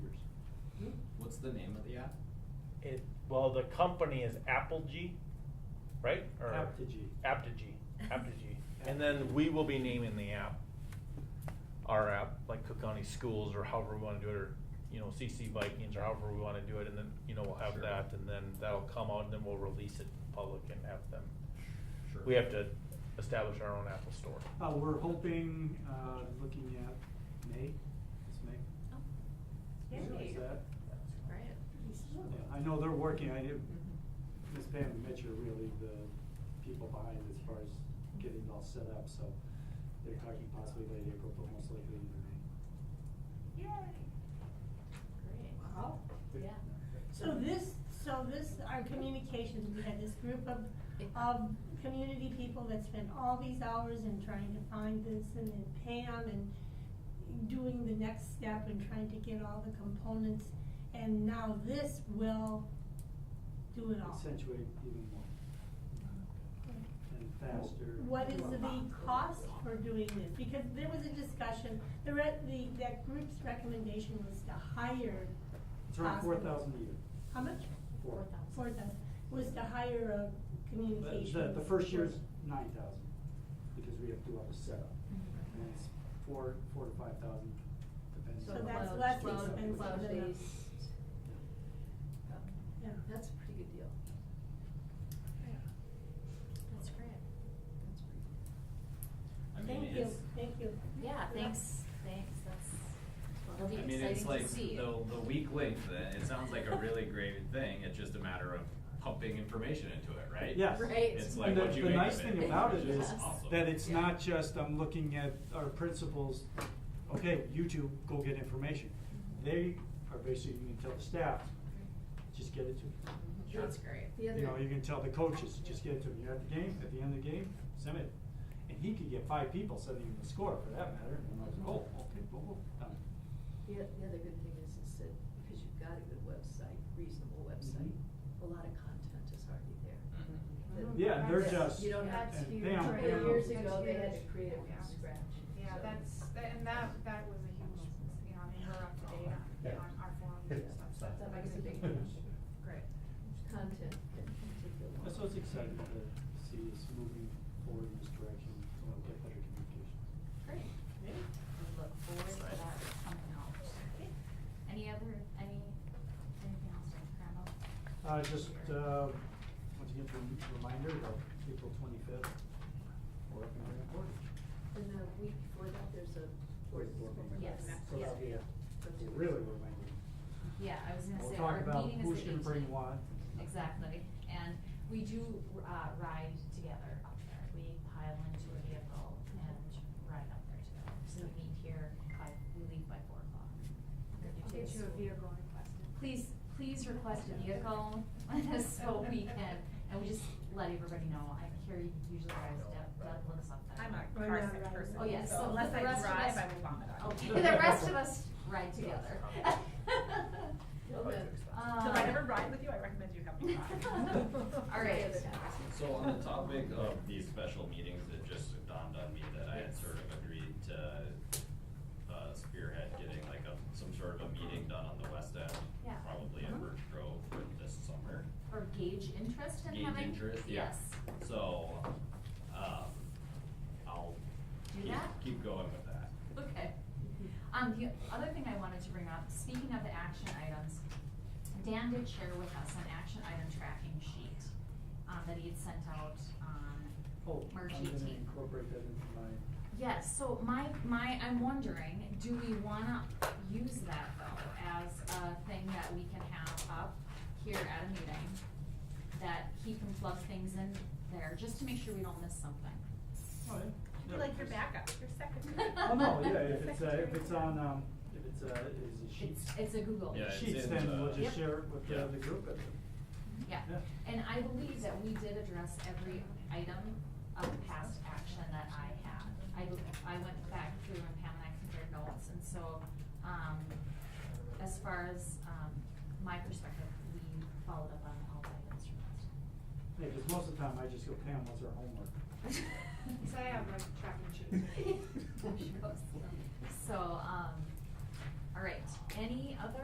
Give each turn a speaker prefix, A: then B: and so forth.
A: the name of the app?
B: It, well, the company is Apogee, right? Or-
C: Apogee.
B: Apogee, Apogee. And then we will be naming the app, our app, like Cook County Schools or however we wanna do it, or, you know, CC Vikings or however we wanna do it, and then, you know, we'll have
A: Sure.
B: that, and then that'll come out, and then we'll release it in public and have them.
A: Sure.
B: We have to establish our own Apple Store.
C: Uh, we're hoping, uh, looking at May, it's May.
D: Oh,
C: Is it-
D: Yay.
C: Is that?
D: Right.
C: Yeah, I know they're working, I did,
D: Mhm.
E: Mm-hmm.
C: Ms. Pam and Mitch are really the people behind as far as getting it all set up, so they're talking possibly late April, but most likely in May.
E: Yay.
D: Great.
E: Wow.
D: Yeah.
E: So this, so this, our communications, we had this group of, of community people that spent all these hours in trying to find this and then Pam and doing the next step and trying to get all the components. And now this will do it all.
C: Accentuate even more and faster.
E: What is the cost for doing this? Because there was a discussion, the re, the, that group's recommendation was to hire.
C: It's around four
E: hospitals.
C: thousand a year.
E: How much?
C: Four.
E: Four thousand, was to hire a communication.
C: The, the first year's nine thousand, because we have to do all the setup.
D: Mhm.
E: Mm-hmm.
C: And it's four, four to five thousand, depending
D: So
C: on.
E: that's
D: cloud-
E: less
D: cloud-
E: expensive than a-
D: Cloud-based.
E: Yeah.
D: That's a pretty good deal. That's great. That's pretty good.
A: I mean,
E: Thank you,
A: it's-
E: thank you.
D: Yeah, thanks, thanks, that's, it'll be
A: I mean, it's
D: exciting
A: like
D: to see.
A: the, the weak link, that, it sounds like a really great thing, it's just a matter of pumping information into it, right?
C: Yes.
D: Right.
A: It's
C: And
A: like
C: the-
A: what you
C: The
A: make
C: nice
A: of
C: thing
A: it,
C: about
A: which
C: it
A: is
C: is
A: awesome.
C: that it's
D: Yeah.
C: not just, I'm looking at our principals, okay, you two, go get information.
E: Mm-hmm.
C: They are basically, you can tell the staff, just get it to me.
D: That's great. The
C: You know,
D: other-
C: you can tell the coaches, just get it to me. You're at the game, at the end of the game, send it. And he could get five people sending him the score for that matter, and I'm like, oh, okay, boom, boom, done.
F: The, o- the other good thing is, is that because you've got a good website,
C: Mm-hmm.
F: reasonable website, a lot of content is already there.
G: Mm-hmm.
F: that-
C: Yeah, and they're
F: that
C: just-
F: You don't have
C: That's
F: to,
C: huge. Pam-
F: twenty years
C: Pam-
F: ago, they had to create it from scratch.
G: Yeah,
F: so-
G: that's, that- and that, that was a huge, you know, I mean, we're up to date on, on our forums and stuff, so that's
F: That
G: a
F: makes a
G: big,
F: big
G: deal.
F: difference.
G: great.
F: Content in particular.
C: That's what's exciting to see is moving forward in this direction, we'll get better communication.
D: Great. We look forward to that coming out.
H: Any other, any, anything else to grab up?
C: Uh, just, uh, once again, a reminder of April twenty-fifth, or if you're in Portage.
F: And the week before that, there's a board meeting.
H: Yes.
C: So that'll be a,
F: Don't you-
C: really reminder.
H: Yeah, I was gonna
C: We'll
H: say,
C: talk
H: our
C: about
H: meeting is
C: who
H: the
C: should bring
H: 18th.
C: what.
H: Exactly, and we do, uh, ride together up there, we pile into a vehicle and ride up there together, so we meet here by, we leave by four o'clock.
G: I'll get you a vehicle request.
H: Please, please request a vehicle, so we can, and we just let everybody know, I carry usually rides, Deb, Deb lives up there.
E: I'm a
G: Right
E: car sick
G: now, right
E: person,
G: now.
H: Oh, yes,
E: so
H: so
E: unless
H: the
E: I
H: rest of
E: drive,
H: us-
E: I will vomit on
H: Okay,
E: you.
H: the rest of us ride together.
F: You'll have-
H: Uh,
E: So if I never ride with you, I recommend you have me ride.
H: All right.
A: So uh, on the topic of these special meetings, it just dawned on me that I had sort of agreed to uh, spearhead getting like a, some sort of a meeting done on the west end.
H: Yeah.
A: Probably
H: Mhm.
A: at
D: Uh-huh.
A: Birch Grove for this summer.
H: Or gauge interest in
A: Gauge
H: having?
A: interest, yeah.
H: Yes.
A: So, um, I'll
H: Do
A: keep,
H: that?
A: keep going with that.
H: Okay. Um, the other thing I wanted to bring up, speaking of the action items, Dan did share with us an action item tracking sheet, um, that he had sent out um,
C: Oh,
H: on March
C: I'm gonna
H: eighteenth.
C: incorporate that into my,
H: Yes, so my, my, I'm wondering, do we wanna use that though as a thing that we can have up here at a meeting? That he can plug things in there, just to make sure we don't miss something.
C: oh, yeah.
E: You're like your backup, your second.
C: Oh, no, yeah, if it's, uh, if it's on, um, if it's, uh, is it
H: It's,
C: sheets?
H: it's a Google.
A: Yeah, it's
C: Sheets,
A: in
C: then
A: the-
C: we'll just
H: Yep.
C: share it with the,
A: Yeah.
C: the group. and-
H: Yeah,
C: Yeah.
H: and I believe that we did address every item of past action that I had. I, I went back through and Pam and I compared notes, and so, um, as far as, um, my perspective, we followed up on all the items from last
C: Yeah, because most of the time I just go, Pam, what's our homework?
H: time.
G: So I have my tracking sheet.
H: So, um, all right, um, any other